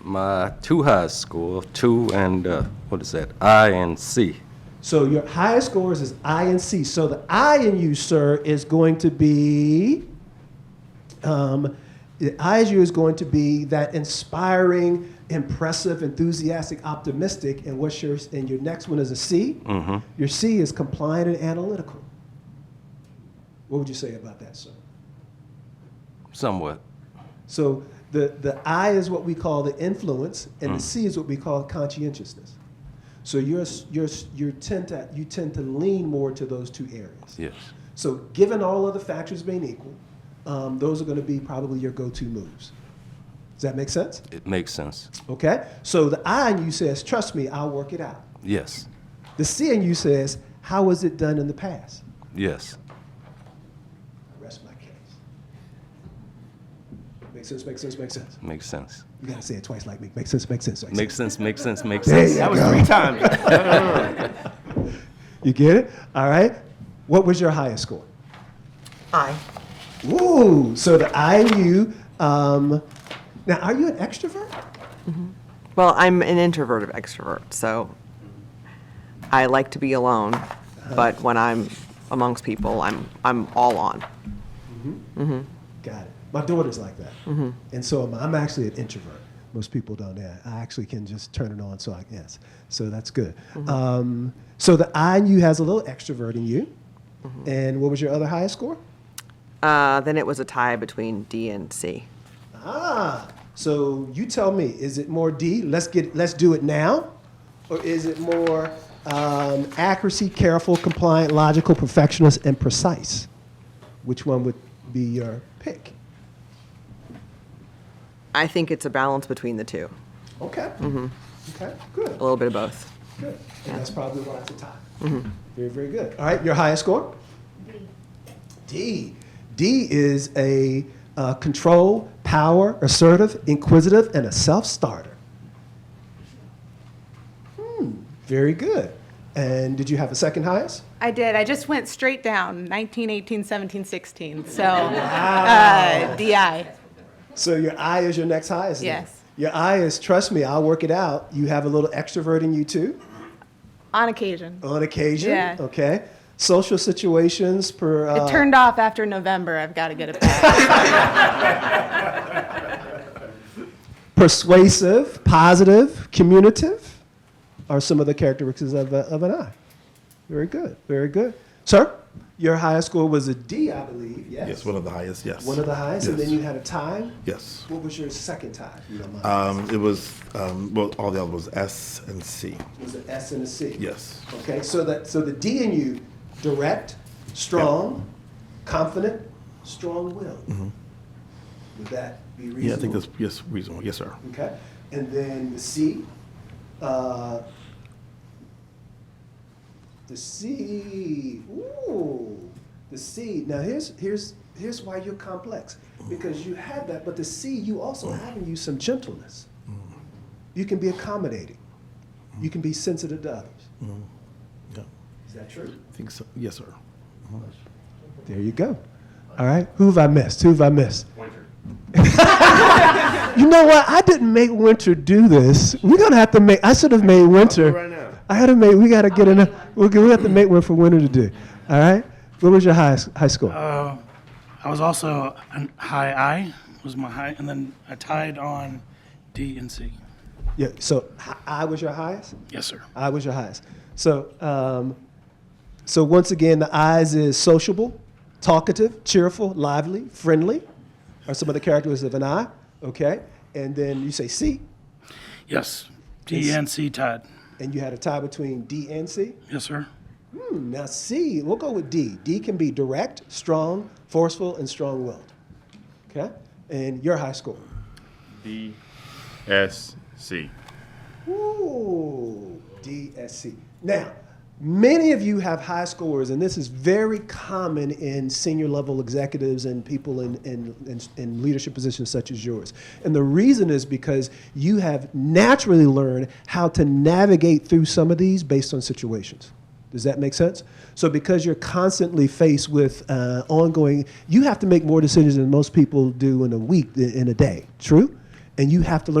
my two high school, two and, uh, what is that, I and C. So your highest scores is I and C. So the I in you, sir, is going to be. Um, the I in you is going to be that inspiring, impressive, enthusiastic, optimistic, and what's your and your next one is a C. Your C is compliant and analytical. What would you say about that, sir? Somewhat. So the, the I is what we call the influence, and the C is what we call conscientiousness. So you're, s- you're, s- you tend to, you tend to lean more to those two areas. Yes. So given all other factors being equal, um, those are going to be probably your go-to moves. Does that make sense? It makes sense. Okay. So the I in you says, "Trust me, I'll work it out." Yes. The C in you says, "How was it done in the past?" Yes. Rest my case. Makes sense. Makes sense. Makes sense. Makes sense. You gotta say it twice, like me. Makes sense. Makes sense. Makes sense. Makes sense. Makes sense. Makes There sense. you That was go. three times. No, no, no, no. You get it? All right. What was your highest score? I. Ooh, so the I and you. Um, now, are you an extrovert? Well, I'm an introverted extrovert, so I like to be alone, but when I'm amongst people, I'm, I'm all on. Got it. My daughter's like that. And so am I. I'm actually an introvert. Most people don't. Yeah, I actually can just turn it on, so I yes. So that's good. Um, so the I in you has a little extrovert in you. And what was your other highest score? Uh, then it was a tie between D and C. Ah, so you tell me, is it more D, let's get, let's do it now? Or is it more um, accuracy, careful, compliant, logical, perfectionist, and precise? Which one would be your pick? I think it's a balance between the two, Okay. Okay, good, a little bit of both. good. And that's probably why it's a tie. Mm-hmm. Very, very good. All right, your highest score? D. D is a uh, control, power, assertive, inquisitive, and a self starter. Hmm, very good. And did you have a second highest? I did. I just went straight down 19, 18, 17, 16. So, uh, DI. So your I is your next highest. then. Yes. Your I is, trust me, I'll work it out. You have a little extrovert in you too, On occasion. on occasion. Yeah. Okay. Social situations per. Uh, It turned off after November. I've got to get it back. persuasive, positive, communicative are some of the characteristics of, a, of an I. Very good, very good. Sir, your highest score was a D, I believe, yes? Yes, one of the highest, yes. One of the highest, and Yes. then you had a tie? Yes. What was your second tie? if you don't mind? Um, it was, um, well, all the other was S and C. It was an S and a C? Yes. Okay, so that, so the D in you, direct, strong, confident, strong-willed. Would that be reasonable? Mm-hmm. Yeah, I think that's, yes, reasonable. Yes, sir. Okay, and then the C, uh, the C, ooh, the C. Now here's here's here's why you're complex because you have that, but the C you also have in you some gentleness. You can be accommodating. You can be sensitive to others. Yeah, Is that true? I think so. Yes, sir. There you go. All right, who have I missed? Who have I missed? You know what? I didn't make Winter do this. We're gonna have to make. I should have made Winter. right now. I had to make. We gotta get enough. We'll, we have to make one for Winter to do. All right. What was your high high score? Uh, I was also an high I was my high, and then I tied on D and C. yeah. So hi- I was your highest. Yes, sir. I was your highest. So um, so once again, the eyes is sociable, talkative, cheerful, lively, friendly, are some of the characteristics of an eye. Okay. And then you say C, Yes, D and C tied. and you had a tie between D and C. Yes, sir. Now C, we'll go with D. D can be direct, strong, forceful, and strong-willed. Okay, and your high score. D S C. Ooh, DSC. Now, many of you have high scores, and this is very common in senior level executives and people in, in, in, in leadership positions such as yours. And the reason is because you have naturally learned how to navigate through some of these based on situations. Does that make sense? So, because you're constantly faced with uh, ongoing, you have to make more decisions than most people do in a week, in a day. True? And you have to learn.